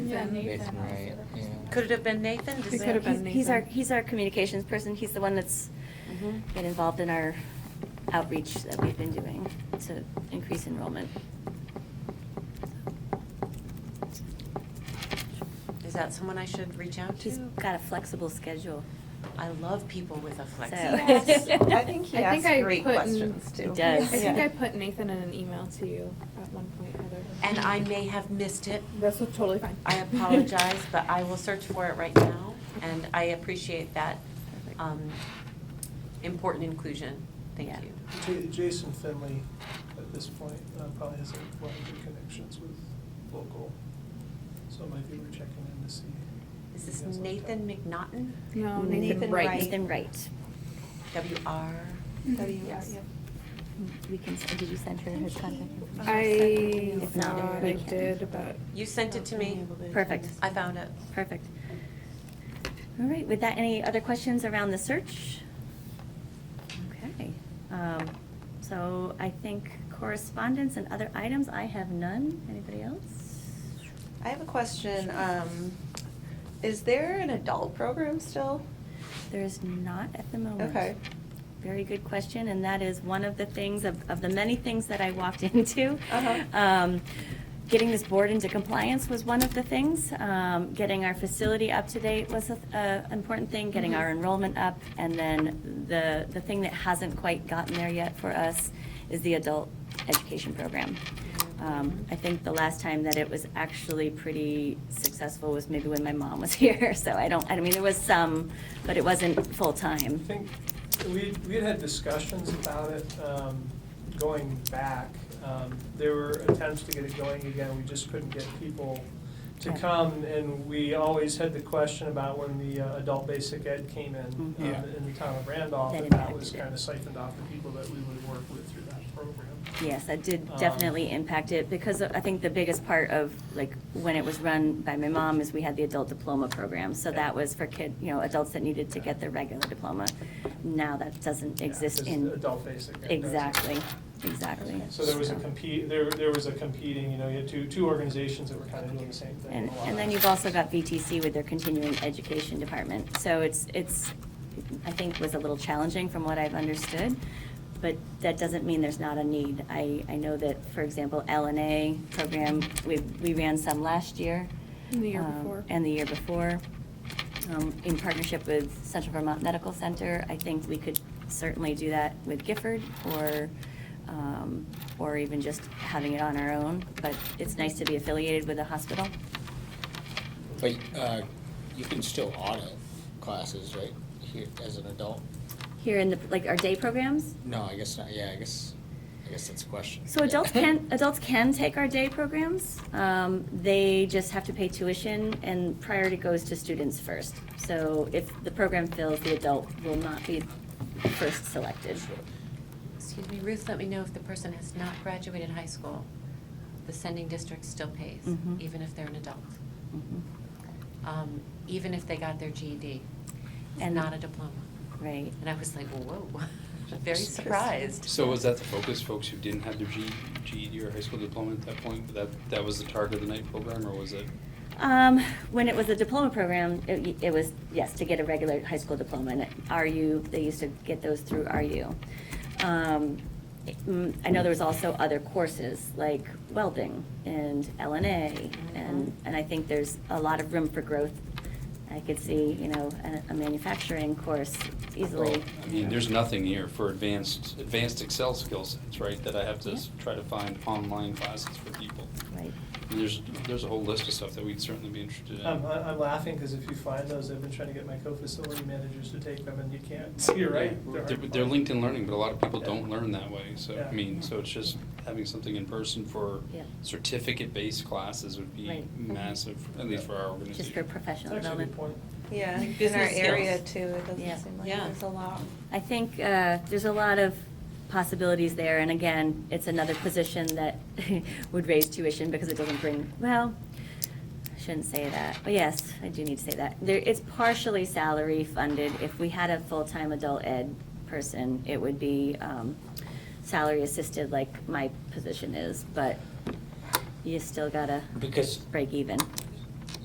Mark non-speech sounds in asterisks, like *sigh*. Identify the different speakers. Speaker 1: Nathan.
Speaker 2: Nathan, right, yeah.
Speaker 3: Could it have been Nathan? Does
Speaker 4: It
Speaker 3: that-
Speaker 4: could have been
Speaker 5: He's our,
Speaker 4: Nathan.
Speaker 5: he's our communications person. He's the one that's
Speaker 3: Mhm.
Speaker 4: Mm-hmm.
Speaker 5: been involved in our outreach that we've been doing to increase enrollment.
Speaker 3: Is that someone I should reach out
Speaker 5: He's
Speaker 3: to?
Speaker 5: got a flexible schedule.
Speaker 4: Oh,
Speaker 3: I love people with a
Speaker 5: So-
Speaker 4: *laughs*
Speaker 5: *laughs*
Speaker 3: flexi.
Speaker 6: I think he
Speaker 4: I think
Speaker 6: asks
Speaker 4: I
Speaker 6: great
Speaker 4: put n-
Speaker 6: questions, too.
Speaker 5: He does.
Speaker 4: I think
Speaker 6: Yeah.
Speaker 4: I put Nathan in an email to you at one point or other.
Speaker 3: And I may have missed it.
Speaker 4: That's totally fine.
Speaker 3: I apologize, but I will search for it right now, and I appreciate that um, important inclusion. Thank
Speaker 5: Yeah.
Speaker 3: you.
Speaker 7: Ja- Jason Finley, at this point, uh, probably has a lot of good connections with local, so maybe we're checking in to see.
Speaker 3: Is
Speaker 7: if
Speaker 3: this
Speaker 7: he has on
Speaker 3: Nathan
Speaker 7: tap.
Speaker 3: McNaughton?
Speaker 4: No, Nathan Wright.
Speaker 5: Nathan Wright.
Speaker 3: W R.
Speaker 6: Yes.
Speaker 5: We can, did you send her his contact information?
Speaker 4: I
Speaker 5: If not,
Speaker 4: thought
Speaker 5: we
Speaker 4: I
Speaker 5: can.
Speaker 4: did, but.
Speaker 3: You sent it to me.
Speaker 5: Perfect.
Speaker 3: I found it.
Speaker 5: Perfect. All right, with that, any other questions around the search? Okay. um, So I think correspondence and other items, I have none. Anybody else?
Speaker 6: I have a question. Um, Is there an adult program still?
Speaker 5: There is not at the moment.
Speaker 6: Okay.
Speaker 5: Very good question, and that is one of the things, of, of the many things that I walked *laughs* into.
Speaker 6: Uh-huh.
Speaker 5: Um, Getting this board into compliance was one of the things. Um, Getting our facility up to date was an important thing, getting
Speaker 6: Mm-hmm.
Speaker 5: our enrollment up. And then the, the thing that hasn't quite gotten there yet for us is the adult education program. Um, I think the last time that it was actually pretty successful was maybe when my mom was *laughs* here. So I don't, I mean, there was some, but it wasn't
Speaker 7: I
Speaker 5: full-time.
Speaker 7: think we, we had had discussions about it um, going back. Um, There were attempts to get it going again, we just couldn't get people to
Speaker 5: Yeah.
Speaker 7: come. And we always had the question about when the uh, adult basic ed came in,
Speaker 5: Mhm.
Speaker 7: um,
Speaker 2: Yeah.
Speaker 7: in the town of Randolph,
Speaker 5: That
Speaker 7: and that was
Speaker 5: impacted it.
Speaker 7: kind of siphoned off the people that we would work with through that program.
Speaker 5: Yes, that did
Speaker 7: Um,
Speaker 5: definitely impact it, because I think the biggest part of, like, when it was run by my mom is we had the adult diploma program. So
Speaker 7: Yeah.
Speaker 5: that was for kid, you know, adults that needed to get their regular diploma. Now that doesn't
Speaker 7: Yeah,
Speaker 5: exist
Speaker 7: 'cause
Speaker 5: in.
Speaker 7: Adult basic. ed does.
Speaker 5: Exactly, exactly.
Speaker 7: So there was a compete, there, there was a competing, you know, you had two, two organizations that were kind of doing the same thing.
Speaker 5: And,
Speaker 7: a lot.
Speaker 5: and then you've also got VTC with their continuing education department. So it's, it's, I think was a little challenging from what I've understood, but that doesn't mean there's not a need. I, I know that, for example, LNA program, we, we ran some last year.
Speaker 4: And the year
Speaker 5: um,
Speaker 4: before.
Speaker 5: And the year before, um, in partnership with Central Vermont Medical Center. I think we could certainly do that with Gifford or, um, or even just having it on our own. But it's nice to be affiliated with a hospital.
Speaker 2: But uh, you can still audit classes, right, here as an adult?
Speaker 5: Here in the, like, our day programs?
Speaker 2: No, I guess not, yeah, I guess, I guess that's a question.
Speaker 5: So
Speaker 2: *laughs*
Speaker 5: adults can, adults can take our day programs. Um, They just have to pay tuition, and priority goes to students first. So if the program fails, the adult will not be first selected.
Speaker 3: Excuse me, Ruth, let me know if the person has not graduated high school. The sending district still pays,
Speaker 5: Mhm.
Speaker 3: even if they're an adult,
Speaker 5: Mhm.
Speaker 3: um, even if they got their GED and
Speaker 5: And-
Speaker 3: not a diploma.
Speaker 5: Right.
Speaker 3: And I was like, whoa, *laughs* very surprised.
Speaker 8: So was that the focus, folks who didn't have their G, GED or high school diploma at that point? That, that was the target of the night program, or was it?
Speaker 5: Um, When it was a diploma program, it it was, yes, to get a regular high school diploma, and RU, they used to get those through RU. Um, mm, I know there was also other courses, like welding and LNA, and, and I think there's a lot of room for growth. I could see, you know, a- a manufacturing course easily.
Speaker 8: Well, I mean, there's nothing here for advanced, advanced Excel skill sets, right, that I have to s-
Speaker 5: Yeah.
Speaker 8: try to find online classes for people.
Speaker 5: Right.
Speaker 8: And There's, there's a whole list of stuff that we'd certainly be interested in.
Speaker 7: I'm, Um, I'm laughing because if you find those, I've been trying to get my co-facility managers to take them and you can't, *laughs* you're right.
Speaker 8: They're
Speaker 7: hard to
Speaker 8: they're
Speaker 7: find.
Speaker 8: LinkedIn learning, but a lot of people
Speaker 7: Yeah.
Speaker 8: don't learn that way, so,
Speaker 7: Yeah.
Speaker 8: I mean, so it's just having something in person for
Speaker 5: Yeah.
Speaker 8: certificate-based classes would be
Speaker 5: Right.
Speaker 8: massive, at least for our organization.
Speaker 5: Just for professional
Speaker 7: That's actually a
Speaker 5: development.
Speaker 7: good
Speaker 6: Yeah,
Speaker 7: point.
Speaker 6: in our
Speaker 3: Business skills.
Speaker 6: area too, it
Speaker 5: Yeah.
Speaker 6: doesn't seem like
Speaker 3: Yeah.
Speaker 6: there's a lot.
Speaker 5: I think uh, there's a lot of possibilities there, and again, it's another position that *laughs* would raise tuition because it doesn't bring, well, I shouldn't say that, but yes, I do need to say that. There, it's partially salary funded. If we had a full-time adult ed person, it would be um, salary assisted like my position is, but you still gotta
Speaker 2: Because
Speaker 5: break even.